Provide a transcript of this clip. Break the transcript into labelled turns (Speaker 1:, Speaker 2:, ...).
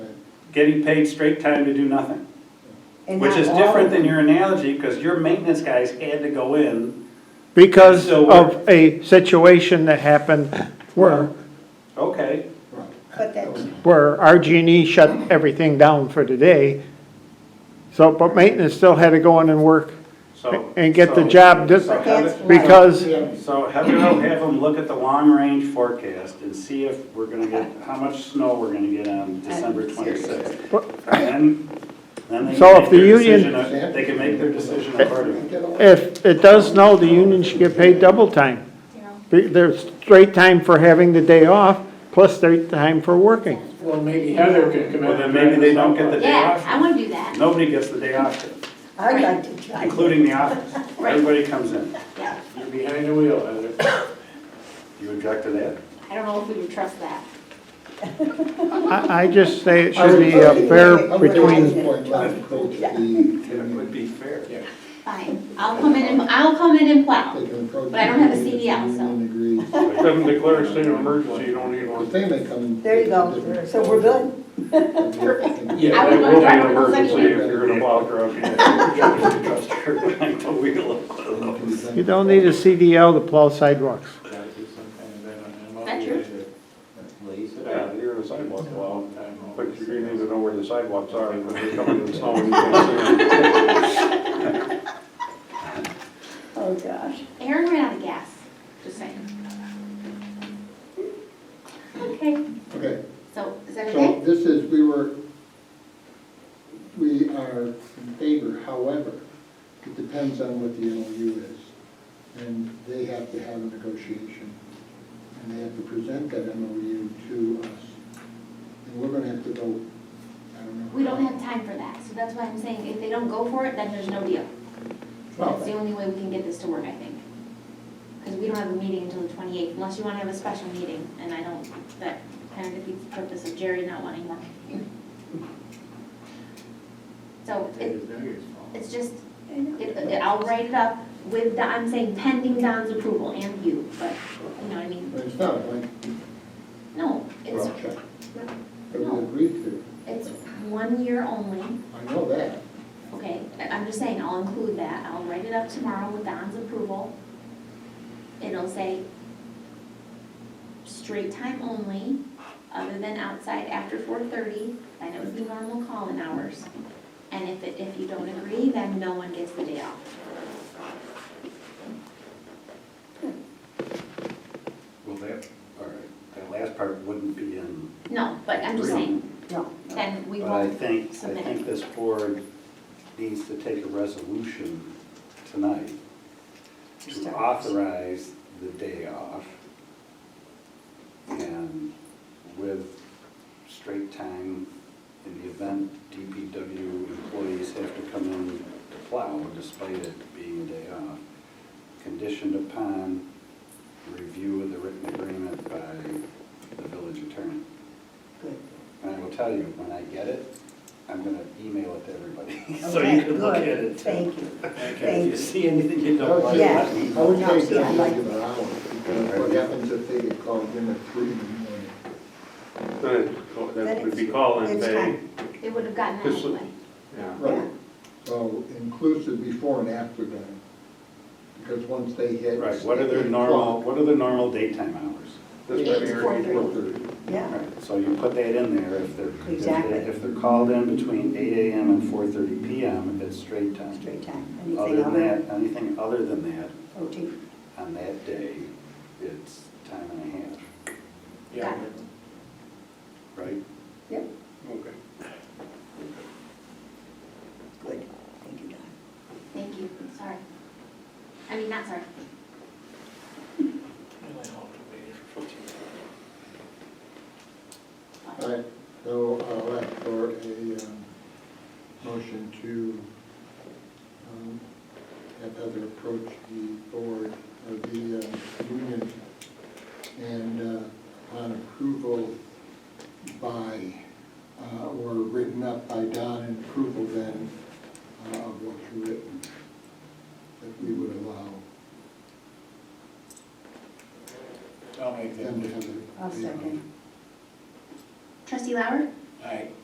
Speaker 1: getting paid straight time to do nothing.
Speaker 2: And
Speaker 1: Which
Speaker 2: not
Speaker 1: is
Speaker 2: all
Speaker 1: different
Speaker 2: of
Speaker 1: than
Speaker 2: them.
Speaker 1: your analogy, because your maintenance guys had to go in,
Speaker 3: because
Speaker 1: So
Speaker 3: of a situation that happened where,
Speaker 1: okay,
Speaker 2: But that's,
Speaker 3: where RG&E E shut everything down for the day. So, but maintenance still had to go in and work
Speaker 1: so.
Speaker 3: and get the
Speaker 1: so-
Speaker 3: job dis-
Speaker 1: so have it-
Speaker 3: because,
Speaker 1: So have them, have them look at the long-range forecast and see if we're gonna get, how much snow we're gonna get on December twenty-sixth. And then they
Speaker 3: So
Speaker 1: can
Speaker 3: if
Speaker 1: make
Speaker 3: the
Speaker 1: their
Speaker 3: union-
Speaker 1: decision, uh, they can make their decision accordingly.
Speaker 3: if it does snow, the union should get paid double time. Be- There's straight time for having the day off, plus straight time for working.
Speaker 4: Well, maybe Heather can come in.
Speaker 1: Well, then maybe they don't get the day
Speaker 5: Yeah, I
Speaker 1: off.
Speaker 5: wanna do that.
Speaker 1: Nobody gets the day off,
Speaker 2: I'd like to try.
Speaker 1: including the office. Everybody comes in.
Speaker 4: You're behind the wheel, Heather.
Speaker 1: You object to that?
Speaker 5: I don't know if we would trust that.
Speaker 3: I, I just say it should be uh, fair between,
Speaker 1: It would be fair.
Speaker 5: Fine, I'll come in and, I'll come in and plow.
Speaker 6: But
Speaker 5: But I don't have a CDL, so.
Speaker 7: Doesn't declare a state of emergency, you don't need one.
Speaker 2: There you go, so we're good.
Speaker 4: Yeah,
Speaker 5: I
Speaker 7: It
Speaker 5: would
Speaker 7: will be
Speaker 5: want
Speaker 7: an
Speaker 5: to work with
Speaker 7: emergency
Speaker 5: somebody.
Speaker 7: if you're gonna plow through.
Speaker 1: The wheel of-
Speaker 3: you don't need a CDL to plow sidewalks.
Speaker 5: That's true.
Speaker 4: Lays it
Speaker 7: Yeah, you're in the sidewalk, well,
Speaker 4: Time off.
Speaker 7: but you do need to know where the sidewalks are when they come in the snow. and you can't see them.
Speaker 2: Oh, gosh.
Speaker 5: Aaron ran out of gas, just saying. Okay,
Speaker 6: Okay,
Speaker 5: so is that
Speaker 6: so
Speaker 5: okay?
Speaker 6: this is, we were, we are in favor, however, it depends on what the MOU is. And they have to have a negotiation, and they have to present that MOU to us. And we're gonna have to vote, I don't know.
Speaker 5: We don't have time for that, so that's why I'm saying if they don't go for it, then there's no deal. That's the
Speaker 6: Well,
Speaker 5: only way we can get this to work, I think. Because we don't have a meeting until the twenty-eighth, unless you want to have a special meeting, and I don't, that kind of defeats the purpose of Jerry not wanting one. So it, it's just, it, it- I'll write it up with, Don- I'm saying pending Don's approval and you, but, you know what I mean?
Speaker 6: It's not like,
Speaker 5: No, it's,
Speaker 6: well, check. But we agreed to,
Speaker 5: it's one year only,
Speaker 6: I know that.
Speaker 5: okay? I- I'm just saying, I'll include that, I'll write it up tomorrow with Don's approval. It'll say straight time only, other than outside after four thirty, then it would be normal call-in hours. And if, it- if you don't agree, then no one gets the day off.
Speaker 1: Well, that, all right, that last part wouldn't be in,
Speaker 5: No, but I'm just saying,
Speaker 2: No.
Speaker 5: then we
Speaker 1: but I
Speaker 5: won't,
Speaker 1: think, I think this board needs to take a resolution tonight to authorize the day off and with straight time in the event DPW employees have to come in to plow despite it being a day off, conditioned upon review of the written agreement by the village attorney.
Speaker 2: Good.
Speaker 1: And I will tell you, when I get it, I'm gonna email it to everybody, so
Speaker 2: Okay,
Speaker 1: you can look at
Speaker 2: good.
Speaker 1: it.
Speaker 2: Thank you.
Speaker 1: If you see anything you
Speaker 6: I
Speaker 1: don't
Speaker 6: would
Speaker 1: like,
Speaker 6: say-
Speaker 2: Yeah.
Speaker 1: let me
Speaker 6: I
Speaker 1: know.
Speaker 6: would
Speaker 2: No,
Speaker 6: say
Speaker 2: see, I
Speaker 6: don't
Speaker 2: like
Speaker 6: give an hour, because what happens if they get called in at three in the morning?
Speaker 7: Then it- That would be calling
Speaker 2: It's
Speaker 7: pay.
Speaker 2: fine.
Speaker 5: they would have gotten that
Speaker 7: This-
Speaker 5: anyway.
Speaker 7: Yeah.
Speaker 2: Yeah.
Speaker 6: Right, so inclusive before and after then, because once they hit.
Speaker 1: Right, what are their normal, what are their normal daytime hours?
Speaker 7: This
Speaker 5: Yeah,
Speaker 7: might be
Speaker 5: it's
Speaker 7: already-
Speaker 5: four
Speaker 6: Four thirty.
Speaker 2: Yeah,
Speaker 1: Right, So you put that in there, if they're, if they-
Speaker 2: Exactly.
Speaker 1: if they're called in between eight AM and four thirty PM, it's straight time.
Speaker 2: straight time.
Speaker 1: Other
Speaker 2: Anything
Speaker 1: than
Speaker 2: other? Oh,
Speaker 1: that, anything other than that,
Speaker 2: OT.
Speaker 1: on that day, it's time and a half,
Speaker 4: Yeah.
Speaker 1: right?
Speaker 2: Yep,
Speaker 7: Okay.
Speaker 2: good. Thank you, Don.
Speaker 5: Thank you, sorry. I mean, not sorry.
Speaker 6: All right, so uh, I'll ask for a um, motion to um, have Heather approach the board, or the um, union, and uh, on approval by, uh, or written up by Don, and approval then uh, of what's written, that we would allow
Speaker 4: I'll make that.
Speaker 6: them to have their.
Speaker 2: I'll second.
Speaker 5: Trustee Lauer?